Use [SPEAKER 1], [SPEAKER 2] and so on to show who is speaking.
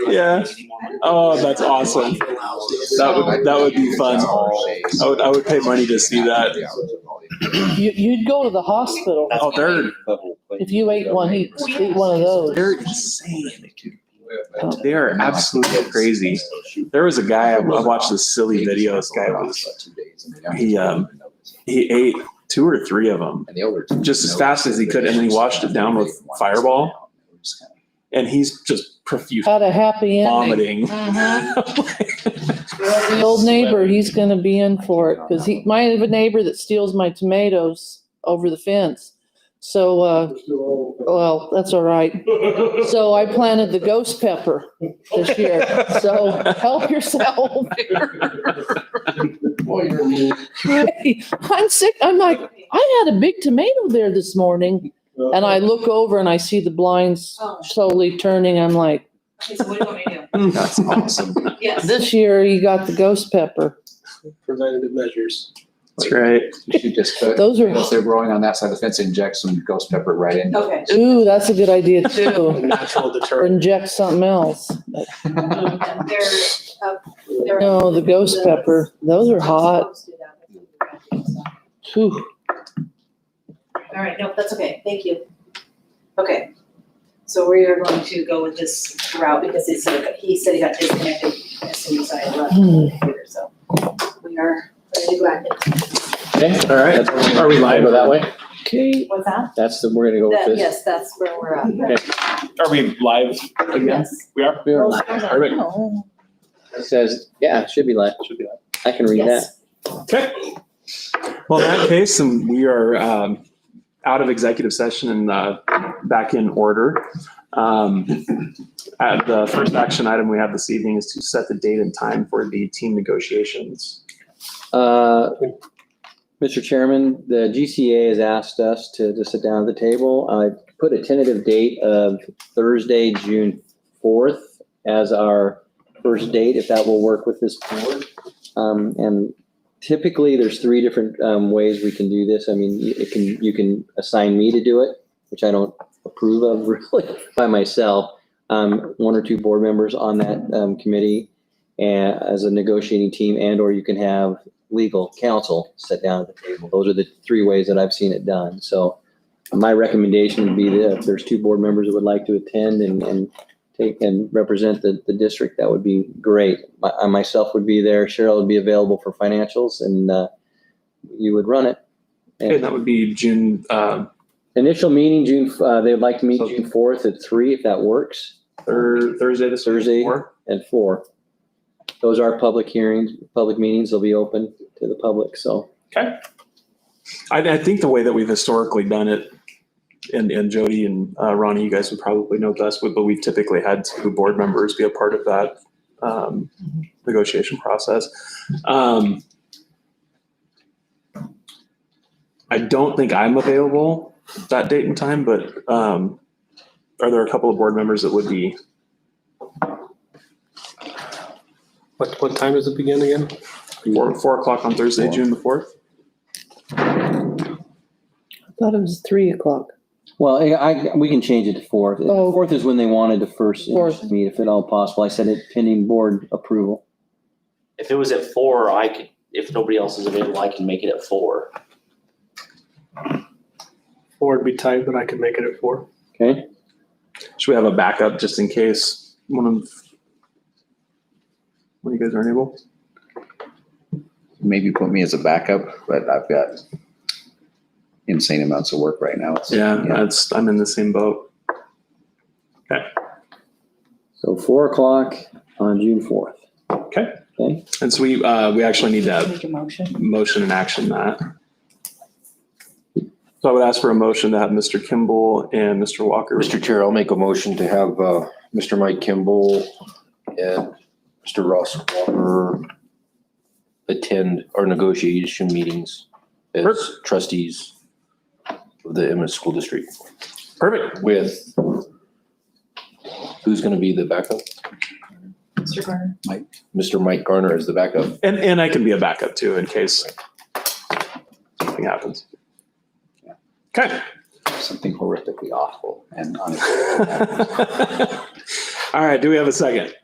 [SPEAKER 1] Yeah. Oh, that's awesome. That would that would be fun. I would I would pay money to see that.
[SPEAKER 2] You, you'd go to the hospital.
[SPEAKER 1] Oh, they're
[SPEAKER 2] If you ate one, he'd eat one of those.
[SPEAKER 1] they're insane. They are absolutely crazy. There was a guy I I watched this silly video. This guy was he, um, he ate two or three of them,
[SPEAKER 3] just as fast as he could, and then he washed it down with Fireball.
[SPEAKER 1] and he's just profuse
[SPEAKER 2] Had a happy ending.
[SPEAKER 1] vomiting.
[SPEAKER 2] The old neighbor, he's gonna be in for it, cause he, might have a neighbor that steals my tomatoes over the fence. So, uh, well, that's all right. So I planted the ghost pepper this year, so help yourself. I'm sick, I'm like, I had a big tomato there this morning, and I look over and I see the blinds slowly turning, I'm like,
[SPEAKER 4] Okay, so what do you want me to
[SPEAKER 1] That's awesome.
[SPEAKER 4] do? Yes.
[SPEAKER 2] this year he got the ghost pepper.
[SPEAKER 5] preventative measures.
[SPEAKER 1] That's right.
[SPEAKER 3] You should just, put-
[SPEAKER 2] Those are-
[SPEAKER 3] if they're growing on that side of the fence, inject some ghost pepper right in.
[SPEAKER 4] Okay.
[SPEAKER 2] Ooh, that's a good idea
[SPEAKER 5] A
[SPEAKER 2] too.
[SPEAKER 5] natural
[SPEAKER 2] Or
[SPEAKER 5] deterrent.
[SPEAKER 2] inject something else.
[SPEAKER 4] And They're, uh, they're.
[SPEAKER 2] No, the ghost pepper, those are hot.
[SPEAKER 4] All
[SPEAKER 2] Whew.
[SPEAKER 4] right, no, that's okay, thank you. Okay, so we are going to go with this route because he said, he said he got disconnected as soon as I left.
[SPEAKER 2] Hmm.
[SPEAKER 4] So we are ready to go back.
[SPEAKER 6] Okay,
[SPEAKER 1] All right.
[SPEAKER 6] that's-
[SPEAKER 1] Are we live?
[SPEAKER 6] Go that way?
[SPEAKER 2] Okay,
[SPEAKER 4] What's that?
[SPEAKER 6] That's the, we're gonna go
[SPEAKER 4] That-
[SPEAKER 6] with this.
[SPEAKER 4] Yes, that's where we're at.
[SPEAKER 1] Are we live again?
[SPEAKER 4] Yes.
[SPEAKER 1] We are.
[SPEAKER 6] We are live. Perfect.
[SPEAKER 2] oh,
[SPEAKER 6] Uh, It says, yeah, it should be live. Should be live. I can read that.
[SPEAKER 4] Yes.
[SPEAKER 1] Okay. Well, in that case, and we are um, out of executive session and uh, back in order. Um, uh, The first action item we have this evening is to set the date and time for the team negotiations.
[SPEAKER 6] Uh, Mr. Chairman, the GCA has asked us to, to sit down at the table. I put a tentative date of Thursday, June fourth as our first date, if that will work with this board. Um, and typically, there's three different, um, ways we can do this. I mean, you- it can, you can assign me to do it, which I don't approve of really by myself. Um, one or two board members on that, um, committee and as a negotiating team and or you can have legal counsel sit down at the table. Those are the three ways that I've seen it done. So my recommendation would be that if there's two board members that would like to attend and, and take and represent the, the district, that would be great. My, I myself would be there, Cheryl would be available for financials and, uh, you would run it.
[SPEAKER 1] And that would be June uh,
[SPEAKER 6] Initial meeting, June, uh, they'd like to meet June fourth at three, if that works,
[SPEAKER 1] thir- Thursday, this
[SPEAKER 6] Thursday.
[SPEAKER 1] Thursday.
[SPEAKER 6] and four. Those are public hearings, public meetings, they'll be open to the public, so.
[SPEAKER 1] I, I think the way that we've historically done it, and, and Jody and uh, Ronnie, you guys would probably know best, but we've typically had two board members be a part of that um, negotiation process. Um, I don't think I'm available that date and time, but um, are there a couple of board members that would be?
[SPEAKER 5] What, what time does it begin again?
[SPEAKER 1] Four, four o'clock on Thursday, June the fourth?
[SPEAKER 2] I thought it was three o'clock.
[SPEAKER 6] Well, I, I- we can change it to fourth.
[SPEAKER 2] Oh.
[SPEAKER 6] Fourth is when they wanted to first
[SPEAKER 2] Fourth.
[SPEAKER 6] meet, if at all possible. I said it pending board approval.
[SPEAKER 7] If it was at four, I could, if nobody else is available, I can make it at four.
[SPEAKER 5] Four would be tight, but I could make it at four.
[SPEAKER 6] Okay,
[SPEAKER 1] Should we have a backup just in case one of, one of you guys aren't able?
[SPEAKER 3] Maybe put me as a backup, but I've got insane amounts of work right now. It's-
[SPEAKER 1] Yeah, that's, I'm in the same boat.
[SPEAKER 6] so four o'clock on June fourth.
[SPEAKER 1] Okay.
[SPEAKER 6] Okay,
[SPEAKER 1] And so we, uh, we actually need to
[SPEAKER 4] Make a motion.
[SPEAKER 1] motion and action that. So I would ask for a motion to have Mr. Kimball and Mr. Walker.
[SPEAKER 8] Mr. Chair, I'll make a motion to have uh, Mr. Mike Kimball and Mr. Ross Walker attend our negotiation meetings
[SPEAKER 1] Sure.
[SPEAKER 8] as trustees of the Emmett School District
[SPEAKER 1] Perfect.
[SPEAKER 8] with who's going to be the backup?
[SPEAKER 4] Mr. Garner.
[SPEAKER 8] Mr. Mike Garner is the backup.
[SPEAKER 1] And, and I can be a backup too in case something happens. Okay.
[SPEAKER 3] Something horrifically awful and unavoidable.
[SPEAKER 1] All right. Do we have a second?